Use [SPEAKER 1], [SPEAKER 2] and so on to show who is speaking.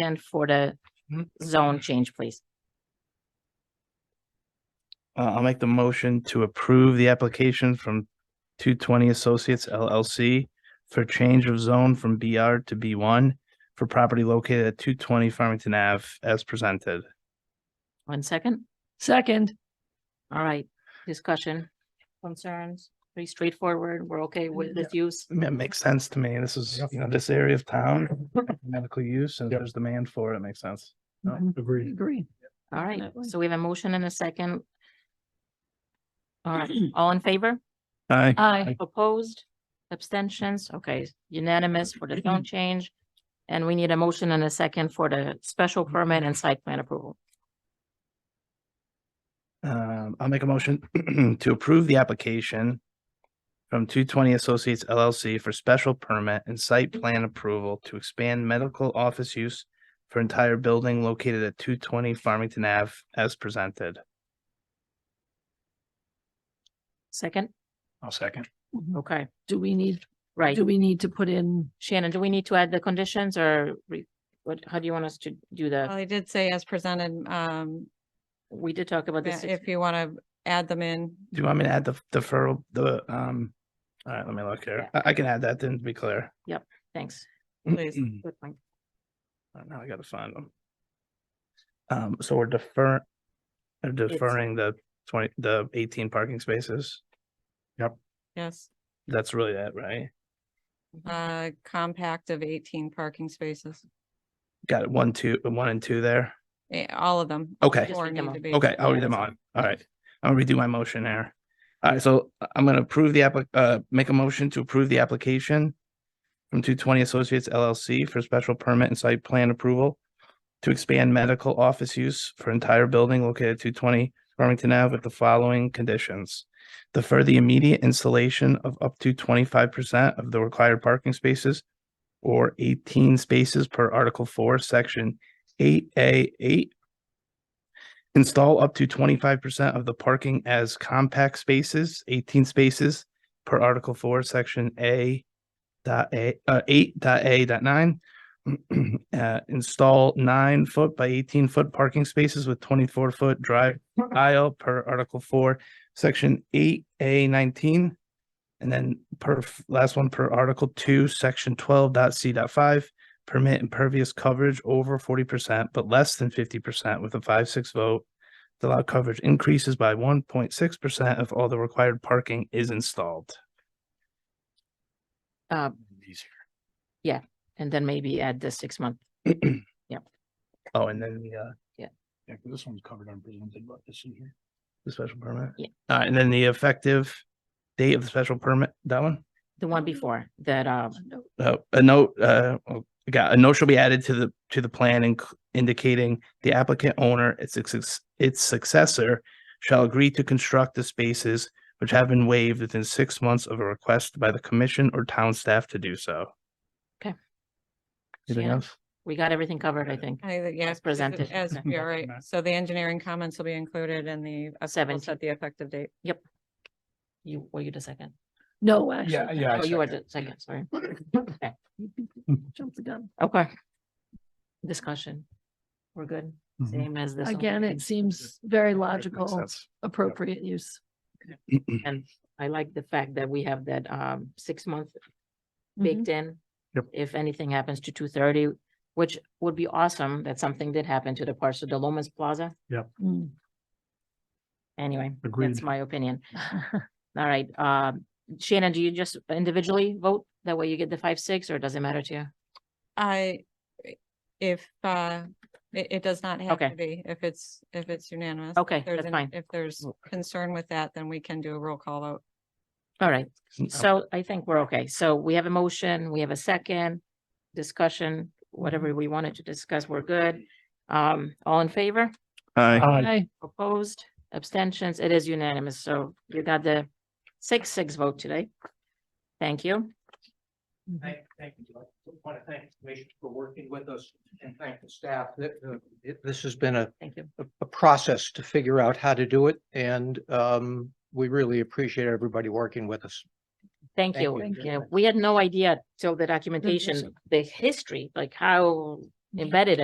[SPEAKER 1] And for the
[SPEAKER 2] Mhm.
[SPEAKER 1] zone change, please.
[SPEAKER 2] Uh, I'll make the motion to approve the application from two twenty Associates LLC for change of zone from BR to B one for property located at two twenty Farmington Ave as presented.
[SPEAKER 1] One second.
[SPEAKER 3] Second,
[SPEAKER 1] All right, discussion, concerns, pretty straightforward. We're okay
[SPEAKER 3] Mm-hmm.
[SPEAKER 1] with this use.
[SPEAKER 2] I mean, It makes sense to me. This is, you know, this area of town, medical use, and if there's demand for it. It makes sense. No.
[SPEAKER 3] Mhm.
[SPEAKER 4] Agreed.
[SPEAKER 3] agree.
[SPEAKER 1] All right,
[SPEAKER 3] Definitely.
[SPEAKER 1] so we have a motion and a second. All right, all in favor?
[SPEAKER 2] Aye.
[SPEAKER 3] Aye.
[SPEAKER 1] Opposed? Abstentions? Okay, unanimous for the zone change. And we need a motion and a second for the special permit and site plan approval.
[SPEAKER 2] Um, I'll make a motion to approve the application from two twenty Associates LLC for special permit and site plan approval to expand medical office use for entire building located at two twenty Farmington Ave as presented.
[SPEAKER 1] Second?
[SPEAKER 2] I'll second.
[SPEAKER 1] Okay,
[SPEAKER 3] Do we need,
[SPEAKER 1] right.
[SPEAKER 3] do we need to put in,
[SPEAKER 1] Shannon, do we need to add the conditions or re- what, how do you want us to do
[SPEAKER 5] Well,
[SPEAKER 1] the,
[SPEAKER 5] I did say as presented, um,
[SPEAKER 1] we did talk about
[SPEAKER 5] yeah,
[SPEAKER 1] this.
[SPEAKER 5] if you want to add them in.
[SPEAKER 2] Do you want me to add the deferral, the, um, all right, let me look here. I, I can add that then to be clear.
[SPEAKER 1] Thanks.
[SPEAKER 5] Please.
[SPEAKER 1] Good point.
[SPEAKER 2] Uh, Now I gotta find them. Um, so we're defer, they're deferring the twenty, the eighteen parking spaces.
[SPEAKER 5] Yes,
[SPEAKER 2] That's really it, right?
[SPEAKER 5] uh, compact of eighteen parking spaces,
[SPEAKER 2] Got it, one, two, one and two there.
[SPEAKER 5] Eh, all of them.
[SPEAKER 2] Okay,
[SPEAKER 1] Just
[SPEAKER 5] Four
[SPEAKER 1] read them
[SPEAKER 5] need
[SPEAKER 1] all.
[SPEAKER 5] to be.
[SPEAKER 2] okay, I'll read them on. All right. I'll redo my motion here. All right, so I- I'm gonna approve the applic uh, make a motion to approve the application from two twenty Associates LLC for special permit and site plan approval to expand medical office use for entire building located at two twenty Farmington Ave with the following conditions. Defer the immediate installation of up to twenty-five percent of the required parking spaces or eighteen spaces per Article Four, Section eight A eight Install up to twenty-five percent of the parking as compact spaces, eighteen spaces per Article Four, Section A dot A, uh, eight dot A dot nine. Uh, install nine foot by eighteen foot parking spaces with twenty-four foot drive aisle per Article Four, Section eight A nineteen. And then per, f- last one per Article Two, Section twelve dot C dot five permit impervious coverage over forty percent but less than fifty percent with a five-six vote. The lot coverage increases by one point six percent if all the required parking is installed.
[SPEAKER 1] Uh, and then maybe add the six month.
[SPEAKER 2] Oh, and then the, uh,
[SPEAKER 4] Yeah, 'cause this one's covered on presented, but this in here.
[SPEAKER 2] the special permit.
[SPEAKER 1] Yeah.
[SPEAKER 2] Uh, and then the effective date of the special permit, that one?
[SPEAKER 1] The one before that, uh,
[SPEAKER 2] Uh, a note, uh, oh, got, a note shall be added to the, to the plan inc- indicating the applicant owner, its, success- its successor shall agree to construct the spaces which have been waived within six months of a request by the commission or town staff to do so.
[SPEAKER 1] Okay.
[SPEAKER 2] Anything
[SPEAKER 1] Shannon?
[SPEAKER 2] else?
[SPEAKER 1] we got everything covered, I think.
[SPEAKER 5] I, think, yeah.
[SPEAKER 1] As presented.
[SPEAKER 5] As,
[SPEAKER 1] Okay.
[SPEAKER 5] you're right. So the engineering comments will be included in the,
[SPEAKER 1] Seventeen.
[SPEAKER 5] we'll set the effective date.
[SPEAKER 1] You, were you the second?
[SPEAKER 3] no, actually,
[SPEAKER 4] yeah.
[SPEAKER 1] Oh, you were the second, sorry. Okay.
[SPEAKER 3] jump the gun.
[SPEAKER 1] Okay. Discussion. We're good,
[SPEAKER 2] Mm-hmm.
[SPEAKER 1] same as this. one.
[SPEAKER 3] Again, it seems very
[SPEAKER 2] Makes
[SPEAKER 3] logical,
[SPEAKER 2] sense.
[SPEAKER 3] appropriate use.
[SPEAKER 1] I like the fact that we have that, um, six month
[SPEAKER 3] Mhm.
[SPEAKER 5] Mm-hmm.
[SPEAKER 1] baked in.
[SPEAKER 2] Yep.
[SPEAKER 1] If anything happens to two thirty, which would be awesome, that something did happen to the parts of the Lomas Plaza.
[SPEAKER 3] Mm.
[SPEAKER 1] Anyway, that's
[SPEAKER 4] Agreed.
[SPEAKER 1] my opinion. All right, um, Shannon, do you just individually vote? That way you get the five, six, or does it matter to you?
[SPEAKER 5] I, if, uh, it, it does not have
[SPEAKER 1] Okay.
[SPEAKER 5] to be, if it's, if it's unanimous.
[SPEAKER 1] Okay,
[SPEAKER 5] If there's
[SPEAKER 1] that's
[SPEAKER 5] an-
[SPEAKER 1] fine.
[SPEAKER 5] If there's
[SPEAKER 2] Well-
[SPEAKER 5] concern with that, then we can do a roll call vote.
[SPEAKER 1] All right,
[SPEAKER 2] Mm, oh,
[SPEAKER 1] so I think we're okay. So we have a motion, we have a second discussion, whatever we wanted to discuss, we're good. Um, all in favor?
[SPEAKER 2] Aye.
[SPEAKER 4] Aye.
[SPEAKER 3] Aye.
[SPEAKER 1] Opposed, abstentions, it is unanimous, so you got the six, six vote today. Thank you.
[SPEAKER 2] Mm-hmm.
[SPEAKER 6] Thank, thank you. I want to thank the commission for working with us and thank the staff. That, uh, it- This has been a,
[SPEAKER 1] Thank you.
[SPEAKER 6] a- a process to figure out how to do it and um, we really appreciate everybody working with us.
[SPEAKER 1] Thank
[SPEAKER 6] Thank
[SPEAKER 1] you.
[SPEAKER 6] you.
[SPEAKER 1] Yeah, we had no idea till the documentation, the history, like how embedded